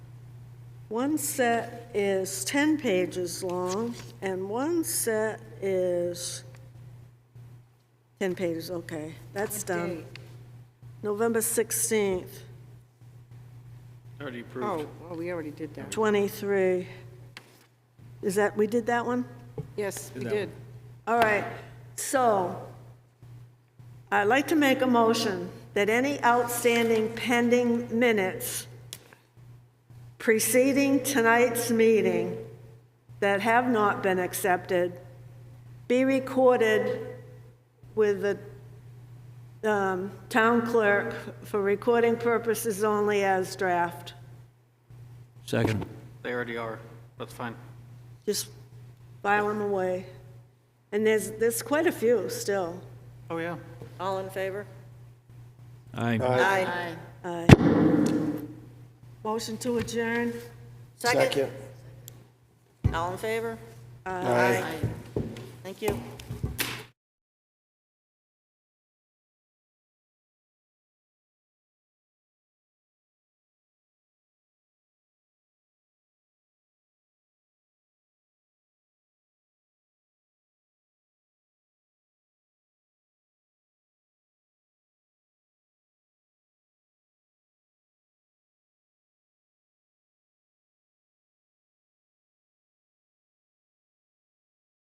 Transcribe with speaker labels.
Speaker 1: One set is 10 pages long, and one set is 10 pages, okay, that's done. November 16th,
Speaker 2: Oh,
Speaker 3: Already approved.
Speaker 2: oh, we already did that.
Speaker 1: 23. Is that, we did that one?
Speaker 2: Yes, we
Speaker 3: that
Speaker 2: did.
Speaker 1: All right, so I'd like to make a motion that any outstanding pending minutes preceding tonight's meeting that have not been accepted be recorded with the um, town clerk for recording purposes only as draft.
Speaker 4: Second.
Speaker 3: They already are. That's fine.
Speaker 1: Just file them away. And there's, there's quite a few still.
Speaker 3: Oh, yeah.
Speaker 5: All in favor?
Speaker 4: Aye.
Speaker 5: Aye.
Speaker 1: Aye. Motion to adjourn?
Speaker 5: Second? All in favor? Aye. Thank you.